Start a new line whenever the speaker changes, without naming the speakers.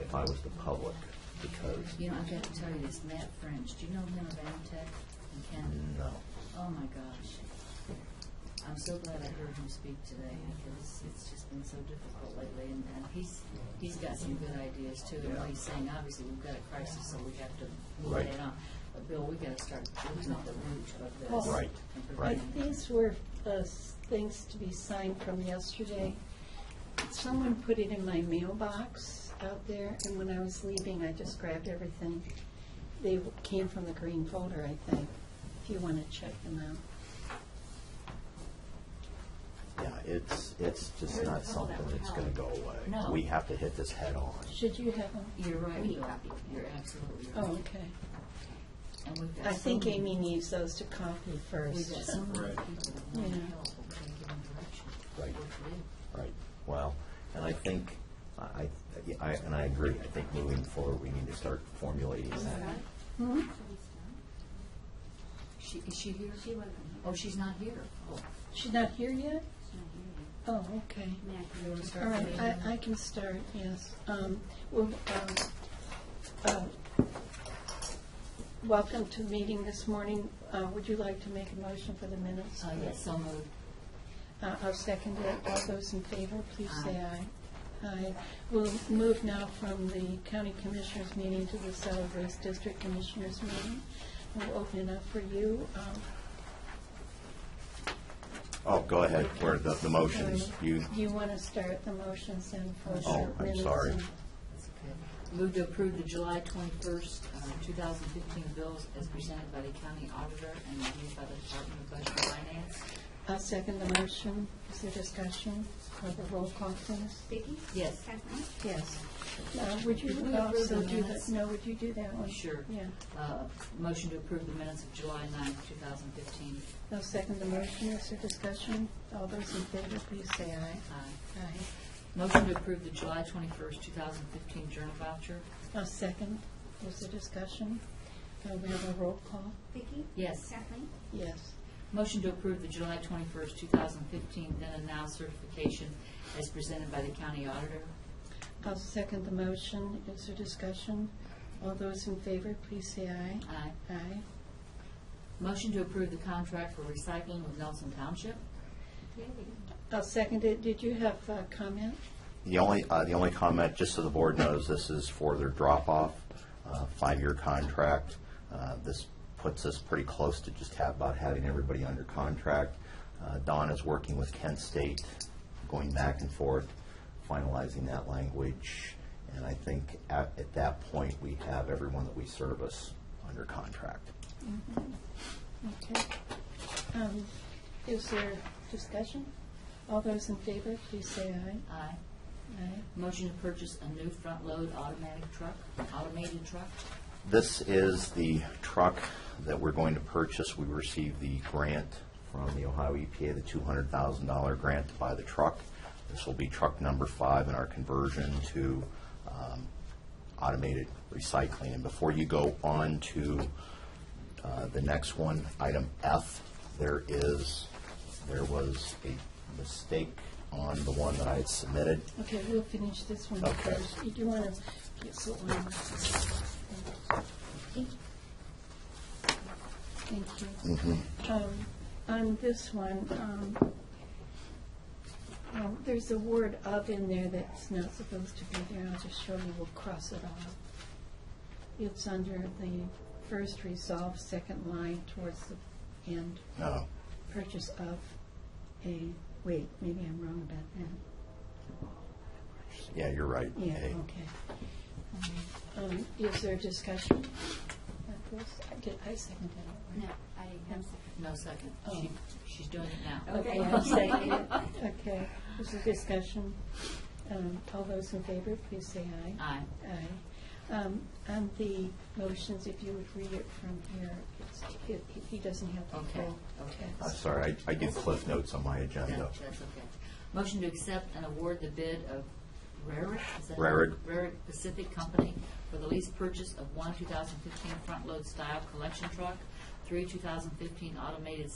if I was the public, because,
You know, I've got to tell you this, Matt French, do you know him of Amtech in Canada?
no.
Oh, my gosh. I'm so glad I heard him speak today, because it's just been so difficult lately, and, and he's, he's got some good ideas too, and what he's saying, obviously, we've got a crisis, so we have to move
Right.
that on. But Bill, we gotta start looking at the root of this.
Well,
Right,
and
right.
preventing it.
These were uh, s- things to be signed from yesterday. Someone put it in my mailbox out there, and when I was leaving, I just grabbed everything. They w- came from the green folder, I think, if you want to check them out.
Yeah, it's, it's just not something that's gonna go away.
No.
We have to hit this head on.
Should you have them?
You're right, Bill, you're absolutely right.
Oh, okay.
And we've got
I
so
think
many-
Amy needs those to copy
We've
first.
got so many people that want to
Yeah.
help, we gotta give them direction.
Right.
What to do.
Right, well, and I think, I, I- yeah, I, and I agree, I think moving forward, we need to start formulating that.
She, is she here? She wasn't. Oh, she's not here. Oh,
She's not here yet? Oh, okay.
you want to start?
All right,
the meeting?
I, I can start, yes. Um, Well, um, uh, welcome to meeting this morning. Uh, Would you like to make a motion for the minutes?
Uh, yes, so moved.
Uh, I'll second it. All those in favor, please say aye. Aye. We'll move now from the county commissioners meeting to the solid waste district commissioners meeting. We'll open it up for you. Um,
Oh, go ahead, where the, the motions, you,
Do you want to start the motions then for the
Oh,
minutes?
I'm sorry.
and-
That's okay. Move to approve the July twenty-first, uh, two thousand fifteen bills as presented by the county auditor and reviewed by the Department of Budget and Finance.
I'll second the motion. Is there discussion? Have a roll call, please.
Vicki?
Yes.
Kathleen?
Yes. Uh, Would you
Did we approve
also
the
do that?
minutes?
No, would you do that one?
Sure.
Yeah.
Uh, motion to approve the minutes of July ninth, two thousand fifteen.
I'll second the motion. Is there discussion? All those in favor, please say aye.
Aye.
Aye.
Uh, Motion to approve the July twenty-first, two thousand fifteen journal voucher.
I'll second. Is there discussion? Uh, We have a roll call.
Vicki?
Yes.
Kathleen?
Yes.
Motion to approve the July twenty-first, two thousand fifteen then and now certification as presented by the county auditor.
I'll second the motion. Is there discussion? All those in favor, please say aye.
Aye.
Aye.
Motion to approve the contract for recycling with Nelson Township.
I'll second it. Did you have a comment?
The only, uh, the only comment, just so the board knows, this is for their drop-off, uh, five-year contract. Uh, This puts us pretty close to just have, about having everybody under contract. Uh, Don is working with Kent State, going back and forth, finalizing that language. And I think at, at that point, we have everyone that we service under contract.
Okay. Um, Is there discussion? All those in favor, please say aye.
Aye.
Aye.
Motion to purchase a new front-load automatic truck, automated truck.
This is the truck that we're going to purchase. We received the grant from the Ohio EPA, the $200,000 grant to buy the truck. This will be truck number five in our conversion to um, automated recycling. And before you go on to uh, the next one, item F, there is, there was a mistake on the one that I had submitted.
Okay, we'll finish this one
Okay.
first. Do you want to get so on? Thank you.
Mm-hmm.
Um, On this one, um, um, there's a word "of" in there that's not supposed to be there. I'll just show you, we'll cross it off. It's under the first resolve, second line towards the end,
No,
purchase of a, wait, maybe I'm wrong about that.
yeah, you're right.
Yeah,
A.
okay. Um, Is there discussion? of this? I did- I seconded it.
No, I didn't have second.
No second. She- She's doing it now.
Okay.
Okay, I'll second it. Okay, is there discussion? Um, All those in favor, please say aye.
Aye.
Aye. Um, And the motions, if you would read it from here, it's- it- he- he doesn't have the
Okay,
full
okay.
I'm
text.
sorry, I I did cliff notes on my agenda.
No, That's okay. Motion to accept and award the bid of Rarick? is that-
Rarick.
Rarick Pacific Company for the lease purchase of one 2015 front-load style collection truck, three 2015 automated